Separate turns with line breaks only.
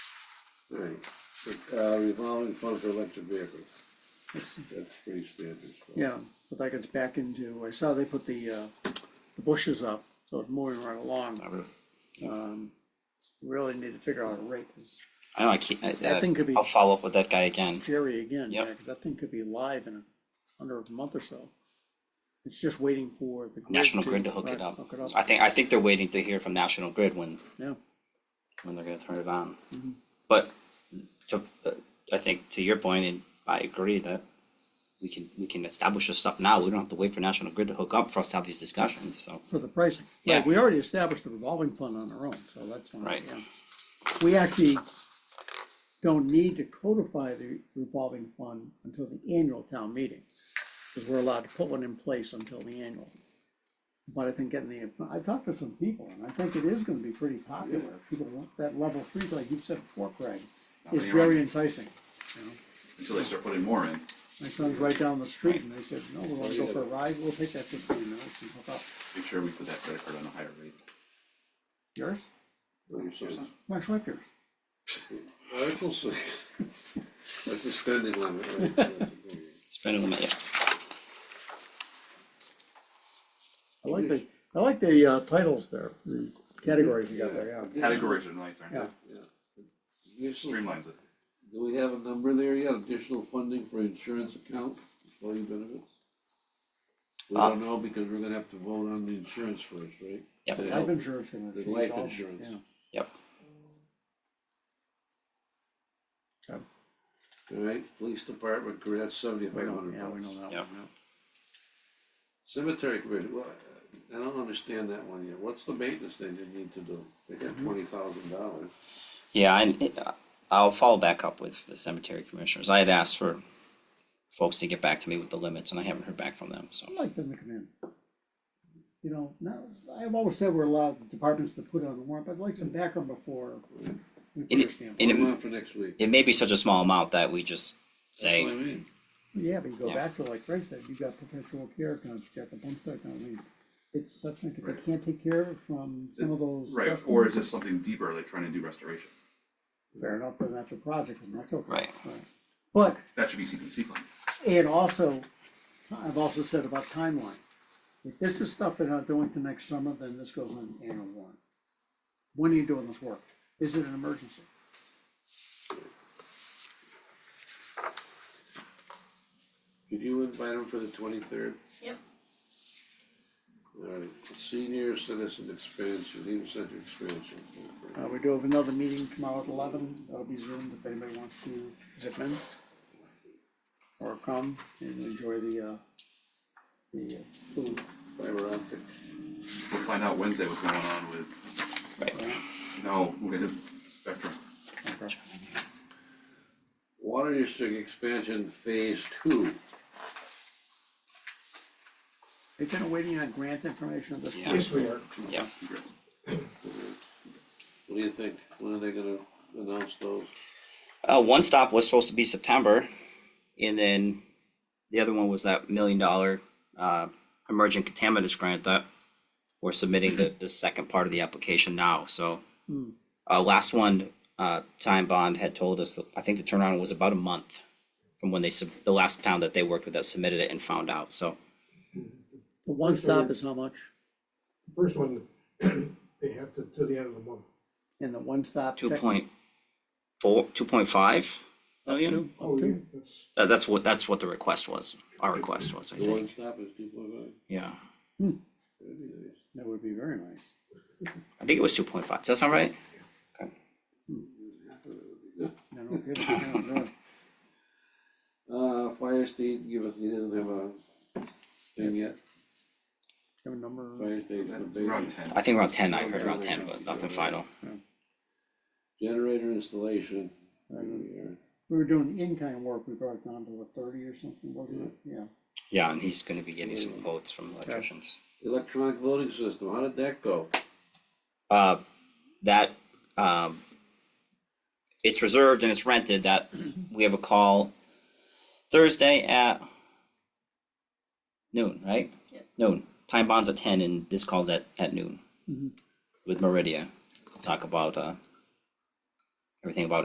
Right, uh, revolving fund for electric vehicles, that's pretty standard. so.
Yeah, but that gets back into, I saw they put the, uh, the bushes up, so it's moving right along. Um, Really need to figure out a rate, 'cause
I know, I can't, I,
That thing could be-
uh, I'll follow up with that guy again.
Jerry again,
Yep.
yeah, 'cause that thing could be live in a- under a month or so. It's just waiting for the. grid
National Grid to hook
right,
it up.
Hook it up,
I think, I think they're waiting to hear from National Grid when,
yeah,
when they're gonna turn it on.
Mm-hmm.
But to, uh, I think to your point, and I agree that we can, we can establish this stuff now. We don't have to wait for National Grid to hook up for us to have these discussions, so.
for the pricing.
Yeah.
Right, we already established the revolving fund on our own, so that's fine.
Right.
yeah. We actually don't need to codify the revolving fund until the annual town meeting. Cause we're allowed to put one in place until the annual. But I think getting the, I talked to some people and I think it is gonna be pretty popular. People want that level three, like you said before, Craig, is
many
very
running.
enticing. you know?
until they start putting more in.
My son's right down the street and they said, no, we wanna go for a ride, we'll take that fifteen minutes and hook up.
Make sure we put that credit card on a higher rate.
Yours?
Makes sense.
My Schweikers.
Article six, that's the spending limit. right? That's a good one.
Spending limit, yeah.
I like the, I like the uh, titles there, the categories you got there, yeah.
Categories are nice, aren't
Yeah,
they?
Additional-
Streamlines it.
Do we have a number there yet, additional funding for insurance account, employee benefits? We
Uh,
don't know, because we're gonna have to vote on the insurance first, right?
Yep.
To
life
help.
insurance. gonna
There's
change
life
all-
insurance.
yeah.
Yep.
Okay.
Alright, police department, grant
We
seventy-five
know,
hundred
yeah, we know
bucks.
that one,
Yep.
yeah.
Cemetery committee, well, I don't understand that one yet, what's the maintenance they didn't need to do? They got
Mm-hmm.
twenty thousand dollars.
Yeah, and uh, I'll follow back up with the cemetery commissioners. I had asked for folks to get back to me with the limits, and I haven't heard back from them, so.
I'd like them to come in. You know, now, I've always said we're allowed departments to put it on the warrant, but I'd like some background before we put
And
our
it,
stamp.
and
Put 'em
it,
on for next week.
it may be such a small amount that we just
That's what I
say,
mean.
Yeah, but you go
Yeah.
back to like Craig said, you got perpetual care accounts, you got the homestead account, I mean, it's such that they
Right.
can't take care of it from some of those.
Right,
trust
or
funds.
is it something deeper, like trying to do restoration?
Fair enough, then that's a project, and that's okay.
Right.
But,
That should be CPC plan.
and also, I've also said about timeline, if this is stuff they're not doing till next summer, then this goes on the annual warrant. When are you doing this work? Is it an emergency?
Could you invite him for the twenty-third?
Yep.
Alright, senior citizen expansion, even center expansion.
Uh, we do have another meeting tomorrow at eleven, that'll be zoomed if anybody wants to zip in. Or come and enjoy the, uh, the uh, food.
Fiber optic,
We'll find out Wednesday what's going on with,
right,
no, with Spectrum.
Okay.
water district expansion phase two,
They kind of waiting on grant information at this
Yeah.
point. Yes, we are.
yeah.
Congrats.
what do you think, when are they gonna announce those?
Uh, one stop was supposed to be September, and then the other one was that million dollar, uh, emergent contaminants grant that we're submitting the, the second part of the application now, so.
Hmm.
Uh, last one, uh, Time Bond had told us, that- I think the turnaround was about a month from when they, sub- the last town that they worked with that submitted it and found out, so.
The one stop is how much?
First one, they have to, to the end of the month.
And the one stop.
Two
tech-
point four, two point five million?
Oh, yeah, that's,
Uh, that's what, that's what the request was, our request was, I
The one
think,
stop is two point five,
yeah.
that'd be nice.
That would be very nice.
I think it was two point five, does that sound right?
I don't get it, I don't know.
Uh, fire state, give us, he doesn't have a thing yet,
Have a number,
fire state.
That's around ten.
I think around ten, I heard around ten, but nothing final.
Generator installation, here we are.
we were doing in-kind work, we brought it down to what, thirty or something, wasn't it? Yeah.
Yeah, and he's gonna be getting some quotes from electricians.
Electronic voting system, how did that go?
Uh, that, um, it's reserved and it's rented, that, we have a call Thursday at noon, right?
Yep.
Noon. Time bonds at ten and this calls at, at noon.
Mhm.
With Meridia, to talk about, uh, everything about